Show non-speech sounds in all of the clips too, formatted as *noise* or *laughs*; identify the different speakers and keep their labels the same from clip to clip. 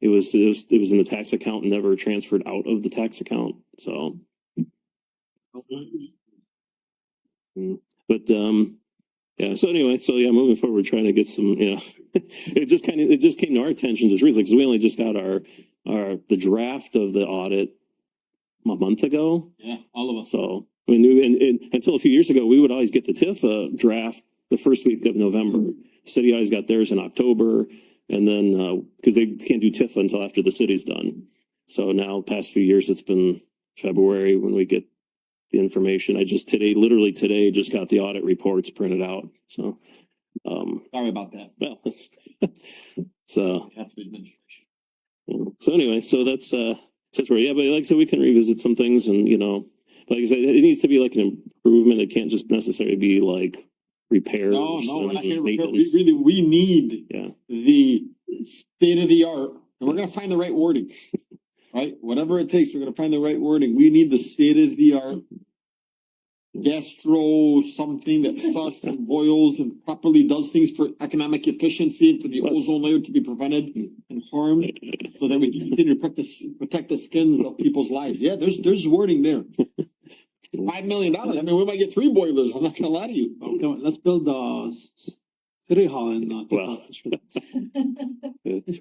Speaker 1: It was, it was, it was in the tax account, never transferred out of the tax account, so. Mm, But, um, yeah, so anyway, so yeah, moving forward, trying to get some, yeah. *laughs* It just kind of, it just came to our attention just recently, because we only just got our, our, the draft of the audit a month ago.
Speaker 2: Yeah, all of us.
Speaker 1: So, I mean, we- and, and until a few years ago, we would always get the TIFA draft the first week of November. City always got theirs in October and then, uh, cause they can't do TIFA until after the city's done. So now past few years, it's been February when we get the information. I just today, literally today, just got the audit reports printed out. So, um, *laughs*
Speaker 2: Sorry about that.
Speaker 1: well, that's, so,
Speaker 2: Half the administration.
Speaker 1: so anyway, so that's uh that's where yeah, but like I said, we can revisit some things and you know, like I said, it needs to be like an improvement. It can't just necessarily be like repairs.
Speaker 2: No, no, we're not
Speaker 1: and
Speaker 2: here. We're here- We
Speaker 1: maintenance.
Speaker 2: really, we need
Speaker 1: Yeah.
Speaker 2: the state of the art, and we're gonna find the right wording. *laughs* Right? Whatever it takes, we're gonna find the right wording. We need the state of the art gastro something that sucks
Speaker 1: *laughs*
Speaker 2: and boils and properly does things for economic efficiency and for the
Speaker 1: Let's-
Speaker 2: ozone layer to be prevented and
Speaker 1: *laughs*
Speaker 2: harmed so that we can continue to practice, protect the skins of people's lives. Yeah, there's, there's wording
Speaker 1: *laughs*
Speaker 2: there. Five million dollars. I mean, we might get three boilers. I'm not gonna lie to you.
Speaker 3: Come on, let's build the s- s- city hall in. uh,
Speaker 1: Well.
Speaker 3: Tecumseh.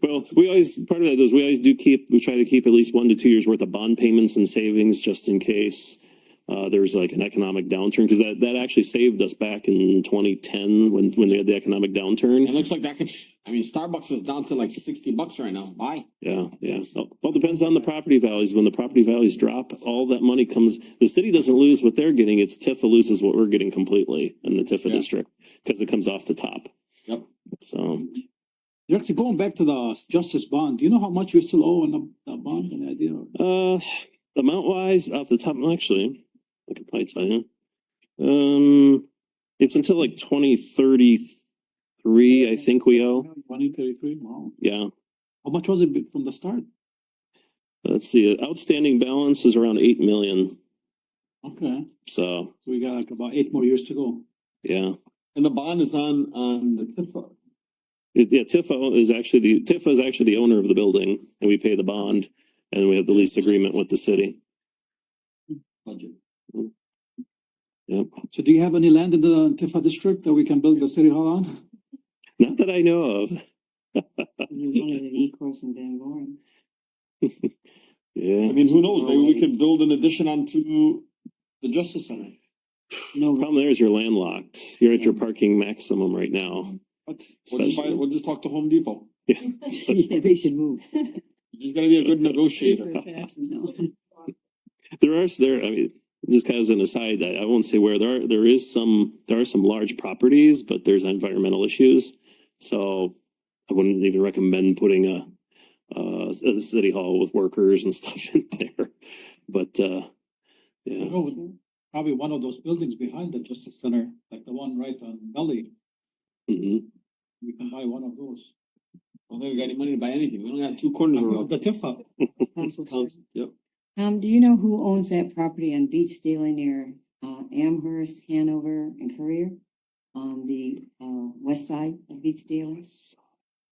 Speaker 1: Well, we always part of that is we always do keep we try to keep at least one to two years worth of bond payments and savings just in case. Uh, there's like an economic downturn because that, that actually saved us back in 2010 when, when they had the economic downturn.
Speaker 2: It looks like that could, I mean, Starbucks is down to like sixty bucks right now. Bye.
Speaker 1: Yeah, yeah. Well, it depends on the property values. When the property values drop, all that money comes, the city doesn't lose what they're getting. It's Tifa loses what we're getting completely in the Tifa
Speaker 2: Yeah.
Speaker 1: district because it comes off the top.
Speaker 2: Yep.
Speaker 1: So,
Speaker 3: You're actually going back to the s- justice bond. Do you know how much you still owe on the, the bond? Any idea?
Speaker 1: uh, amount wise, off the top, actually, I could probably tell you. Um, it's until like twenty thirty-three, I think we owe.
Speaker 3: Twenty thirty-three, wow.
Speaker 1: Yeah.
Speaker 3: How much was it be- from the start?
Speaker 1: Let's see, outstanding balance is around eight million.
Speaker 3: Okay,
Speaker 1: So,
Speaker 3: we got like about eight more years to go.
Speaker 1: yeah.
Speaker 2: And the bond is on, on the Tifa.
Speaker 1: It- Yeah, Tifa is actually the, Tifa is actually the owner of the building and we pay the bond and we have the lease agreement with the city.
Speaker 2: budget.
Speaker 1: Yep.
Speaker 3: So do you have any land in the Tifa district that we can build the city hall
Speaker 2: *laughs*
Speaker 3: on? *laughs*
Speaker 1: Not that I know of.
Speaker 4: You wanted an E-course in Van Born.
Speaker 2: I
Speaker 1: Yeah.
Speaker 2: mean, who knows? Maybe we can build an addition onto the Justice Center.
Speaker 4: No,
Speaker 1: Problem there is you're landlocked. You're at your parking maximum right now.
Speaker 2: What? We'll just buy,
Speaker 1: Especially-
Speaker 2: we'll just talk to Home Depot.
Speaker 4: yeah, they should move.
Speaker 2: You just gotta be a good negotiator.
Speaker 1: *laughs* There are, there, I mean, just kind of as an aside, I, I won't say where there are, there is some, there are some large properties, but there's environmental issues. So I wouldn't even recommend putting a, uh, a city hall with workers and *laughs* stuff in there. But, uh, yeah.
Speaker 3: Go- Probably one of those buildings behind the justice center, like the one right on Valley.
Speaker 4: Mm-hmm.
Speaker 1: Mhm.
Speaker 3: We can buy one of those.
Speaker 2: I don't think we got any money to buy anything. We only got two corners around.
Speaker 3: The Tifa,
Speaker 2: Council, Yep.
Speaker 4: Um, do you know who owns that property on Beach Daily near, uh, Amherst, Hanover and Courier? On the, uh, west side of Beach Daily?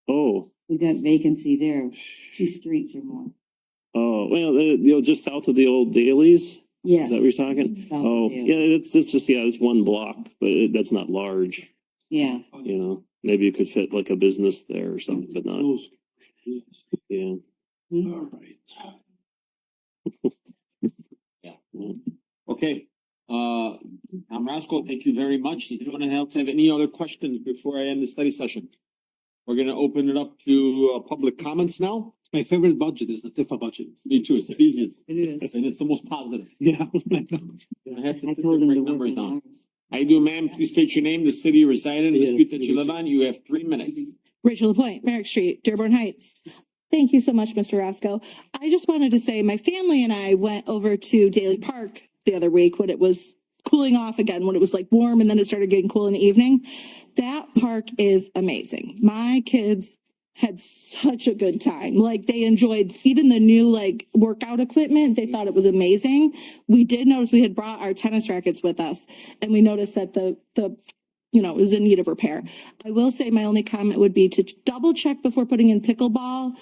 Speaker 1: Oh,
Speaker 4: We got vacancy there, two streets or more.
Speaker 1: oh, well, uh, you know, just south of the old dailies, is
Speaker 4: Yes.
Speaker 1: that what you're talking?
Speaker 4: South of
Speaker 1: Oh,
Speaker 4: you.
Speaker 1: yeah, it's, it's just, yeah, it's one block, but it- that's not large,
Speaker 4: Yeah,
Speaker 1: you know? Maybe you could fit like a business there or something, but not,
Speaker 3: those.
Speaker 1: yeah.
Speaker 3: All right.
Speaker 2: Okay, uh, I'm Roscoe. Thank you very much. If anyone else have any other questions before I end the study session? We're gonna open it up to, uh, public comments now.
Speaker 3: My favorite budget is the Tifa budget. *laughs*
Speaker 2: Me too. It's the easiest
Speaker 4: it is.
Speaker 2: and it's the most positive.
Speaker 3: Yeah.
Speaker 2: You don't have to
Speaker 4: I
Speaker 2: put
Speaker 4: told
Speaker 2: your
Speaker 4: him to
Speaker 2: break
Speaker 4: work
Speaker 2: numbers
Speaker 4: in
Speaker 2: down.
Speaker 4: ours.
Speaker 2: How you do, ma'am? Please state your name, the city you reside in, the
Speaker 3: Yeah,
Speaker 2: street that you
Speaker 3: city.
Speaker 2: live on. You have three minutes.
Speaker 5: Rachel LaPointe, Merrick Street, Dearborn Heights. Thank you so much, Mr. Roscoe. I just wanted to say my family and I went over to Daly Park the other week when it was cooling off again, when it was like warm and then it started getting cool in the evening. That park is amazing. My kids had such a good time. Like they enjoyed even the new like workout equipment. They thought it was amazing. We did notice we had brought our tennis rackets with us and we noticed that the the you know, it was in need of repair. I will say my only comment would be to double check before putting in pickleball